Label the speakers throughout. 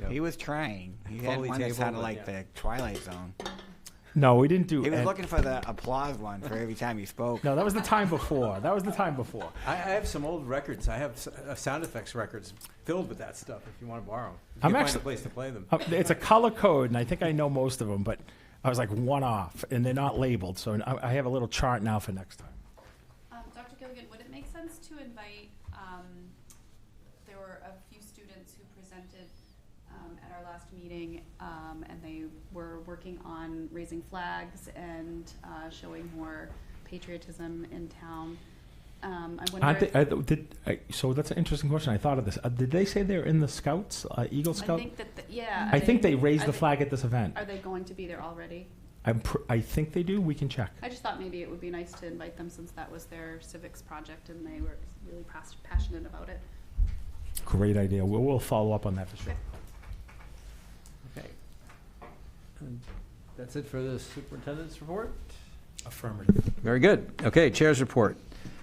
Speaker 1: Yep.
Speaker 2: He was trying. He had
Speaker 1: Foley
Speaker 2: one that
Speaker 1: table,
Speaker 2: sounded
Speaker 1: but
Speaker 2: like
Speaker 1: yeah.
Speaker 2: the Twilight Zone.
Speaker 3: No, we didn't do.
Speaker 2: He was
Speaker 3: any-
Speaker 2: looking for the applause one for every time he spoke.
Speaker 3: no, that was the time before. That was the time before.
Speaker 1: I, I have some old records. I have s- uh, sound effects records filled with that stuff. If you want to borrow them,
Speaker 3: I'm
Speaker 1: find
Speaker 3: actually-
Speaker 1: a place to play them.
Speaker 3: Uh, It's a color code, and I think I know most of them, but I was like one off, and they're not labeled, so I, I have a little chart now for next time.
Speaker 4: Um, Dr. Gilligan, would it make sense to invite, um, there were a few students who presented, um, at our last meeting, um, and they were working on raising flags and, uh, showing more patriotism in town. Um, I
Speaker 3: Aren't
Speaker 4: wonder
Speaker 3: they,
Speaker 4: if,
Speaker 3: I, did, I, so that's an interesting question. I thought of this. Uh, did they say they're in the Scouts, uh, Eagle
Speaker 4: I
Speaker 3: Scout?
Speaker 4: think that, the- yeah.
Speaker 3: I think they raised
Speaker 4: are
Speaker 3: the flag at this event.
Speaker 4: Are they going to be there already?
Speaker 3: I'm pr- I think they do. We can check.
Speaker 4: I just thought maybe it would be nice to invite them since that was their civics project and they were really pas- passionate about it.
Speaker 3: Great idea. We'll, we'll follow up on that for sure.
Speaker 5: Okay. And That's it for the superintendent's report?
Speaker 3: Affirmative.
Speaker 5: Very good. Okay, chair's report.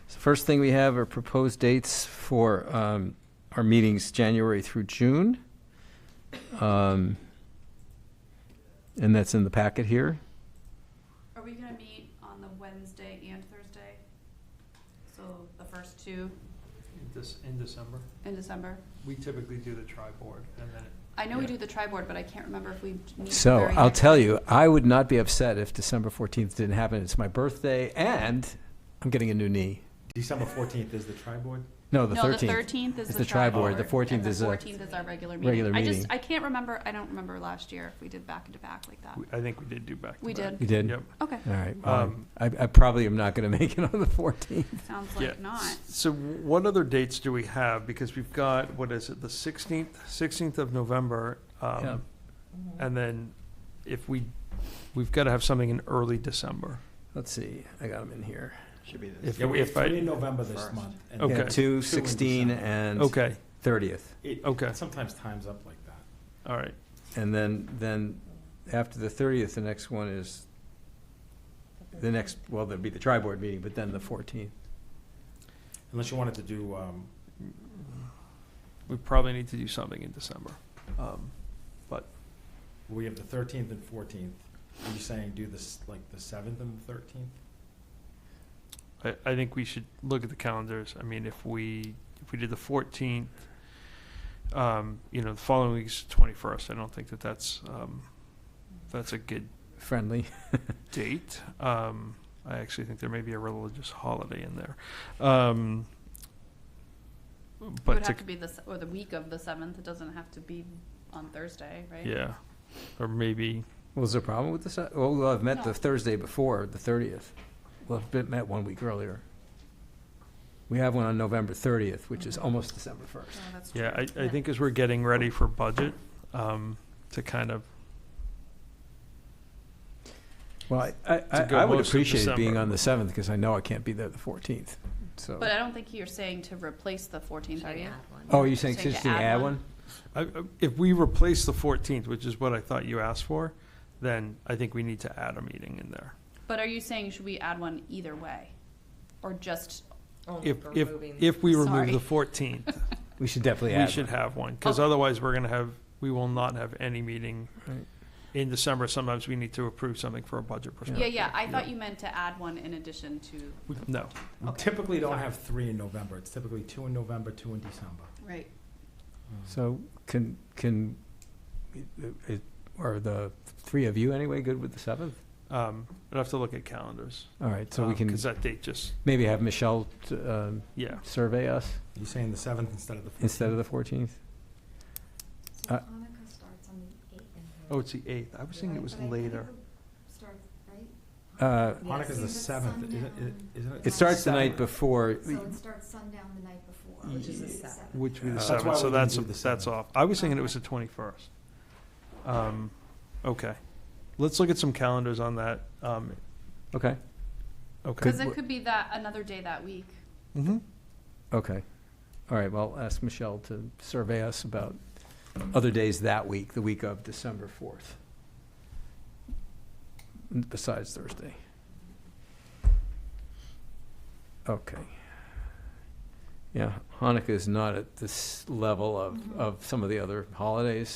Speaker 5: So First thing we have are proposed dates for um, our meetings, January through June. Um, And that's in the packet here.
Speaker 4: Are we gonna meet on the Wednesday and Thursday? So the first two
Speaker 6: This, in December,
Speaker 4: in December?
Speaker 6: we typically do the tri-board, and then
Speaker 4: I know we
Speaker 5: Yeah.
Speaker 4: do the tri-board, but I can't remember if we d- meet. the
Speaker 5: So
Speaker 4: very
Speaker 5: I'll
Speaker 4: next-
Speaker 5: tell you, I would not be upset if December 14th didn't happen. It's my birthday and I'm getting a new knee.
Speaker 1: December fourteenth is the tri board.
Speaker 5: No, the
Speaker 4: No, the
Speaker 5: 13th.
Speaker 4: thirteenth is
Speaker 5: It's
Speaker 4: the
Speaker 5: the tri-board.
Speaker 4: tri-board.
Speaker 5: The 14th
Speaker 4: and
Speaker 5: is
Speaker 4: the
Speaker 5: a
Speaker 4: fourteenth is our regular meeting.
Speaker 5: regular
Speaker 4: I just,
Speaker 5: meeting.
Speaker 4: I can't remember, I don't remember last year if we did back to back like that.
Speaker 6: it-
Speaker 5: uh,
Speaker 6: I think we did do back to
Speaker 4: We
Speaker 6: back.
Speaker 5: You did?
Speaker 6: Yep.
Speaker 4: Okay,
Speaker 5: All right. well,
Speaker 6: Um,
Speaker 5: I I probably am not going to make it on the 14th.
Speaker 4: sounds
Speaker 6: Yeah.
Speaker 4: like not.
Speaker 6: So what other dates do we have? Because we've got, what is it, the sixteenth, sixteenth of November? um,
Speaker 5: Yeah.
Speaker 6: And then if we, we've got to have something in early December.
Speaker 5: Let's see, I got them in here.
Speaker 2: Should be this.
Speaker 6: If- if I-
Speaker 3: three in November this
Speaker 2: First.
Speaker 3: month. And
Speaker 6: Okay.
Speaker 5: Yeah,
Speaker 3: then
Speaker 5: two,
Speaker 3: in
Speaker 5: 16,
Speaker 3: December.
Speaker 5: and
Speaker 6: Okay,
Speaker 5: 30th.
Speaker 3: It-
Speaker 6: Okay.
Speaker 3: Sometimes times up like that.
Speaker 6: all right.
Speaker 5: And then, then after the 30th, the next one is, the next, well, there'd be the tri-board meeting, but then the 14th.
Speaker 3: Unless you wanted to do um,
Speaker 6: We probably need to do something in December. Um,
Speaker 3: We have the thirteenth and fourteenth. Are you saying do this, like, the seventh and the thirteenth?
Speaker 6: I, I think we should look at the calendars. I mean, if we, if we did the fourteenth, um, you know, the following week's twenty-first, I don't think that that's, um, that's a good
Speaker 5: Friendly.
Speaker 6: date. Um, I actually think there may be a religious holiday in there. Um,
Speaker 4: It would
Speaker 6: but to-
Speaker 4: have to be the, s- or the week of the seventh, it doesn't have to be on Thursday, right?
Speaker 6: yeah, or maybe
Speaker 5: Was there a problem with this? Well, we'll have met
Speaker 4: No.
Speaker 5: the Thursday before, the 30th. We'll have been- met one week earlier. We have one on November 30th, which is almost December 1st.
Speaker 4: No, Oh, that's
Speaker 6: yeah. I,
Speaker 4: true.
Speaker 6: I think as we're getting ready for budget, um, to kind of
Speaker 5: Well, I- I, I,
Speaker 6: go
Speaker 5: I would
Speaker 6: most of
Speaker 5: appreciate it being
Speaker 6: December.
Speaker 5: on the 7th because I know I can't be there the 14th, so.
Speaker 4: But I don't think you're saying to replace the fourteenth, are you?
Speaker 5: Oh, you're saying
Speaker 4: So you
Speaker 5: just to add one?
Speaker 6: I- I- If we replace the 14th, which is what I thought you asked for, then I think we need to add a meeting in there.
Speaker 4: But are you saying should we add one either way? Or just,
Speaker 6: If, if, if we remove
Speaker 4: Oh, Sorry.
Speaker 6: the 14th,
Speaker 5: We should definitely
Speaker 6: we
Speaker 5: add
Speaker 6: should
Speaker 5: one.
Speaker 6: have one, because
Speaker 4: Okay.
Speaker 6: otherwise we're going to have, we will not have any meeting
Speaker 5: Right.
Speaker 6: in December. Sometimes we need to approve something for a budget
Speaker 4: yeah,
Speaker 6: perspective.
Speaker 4: yeah, I thought you meant to add one in addition to,
Speaker 6: We- No,
Speaker 3: We
Speaker 4: Okay.
Speaker 3: typically don't have three in November. It's typically two in November, two in December.
Speaker 4: right,
Speaker 5: So can, can, i- are the three of you anyway good with the 7th?
Speaker 6: um, I'd have to look at calendars.
Speaker 5: All right, so we can
Speaker 6: Because that date just,
Speaker 5: maybe have Michelle t- um,
Speaker 6: yeah.
Speaker 5: survey us
Speaker 3: You saying the seventh instead of the fourteenth?
Speaker 5: instead of the 14th?
Speaker 7: So
Speaker 5: Uh,
Speaker 7: Hanukkah starts on the eighth.
Speaker 6: Oh, it's the 8th. I was thinking it was later.
Speaker 7: Starts, right?
Speaker 5: Uh,
Speaker 3: Hanukkah's the seventh, isn't it? Isn't it?
Speaker 5: It starts the night before,
Speaker 7: So it starts sundown the night before.
Speaker 5: Which is the
Speaker 7: seventh.
Speaker 6: Which would be the
Speaker 3: That's why
Speaker 6: 7th, Uh, so
Speaker 3: we didn't
Speaker 6: that's,
Speaker 3: do the
Speaker 6: that's
Speaker 3: 7th.
Speaker 6: off. I was thinking it was the 21st. Um, Okay. Let's look at some calendars on that. Um,
Speaker 5: okay,
Speaker 6: Okay.
Speaker 4: cause it could be that, another day that week.
Speaker 6: Mm-hmm.
Speaker 5: okay. All right, well, I'll ask Michelle to survey us about other days that week, the week of December 4th, besides Thursday. Okay. Yeah, Hanukkah is not at this level of, of some of the other holidays,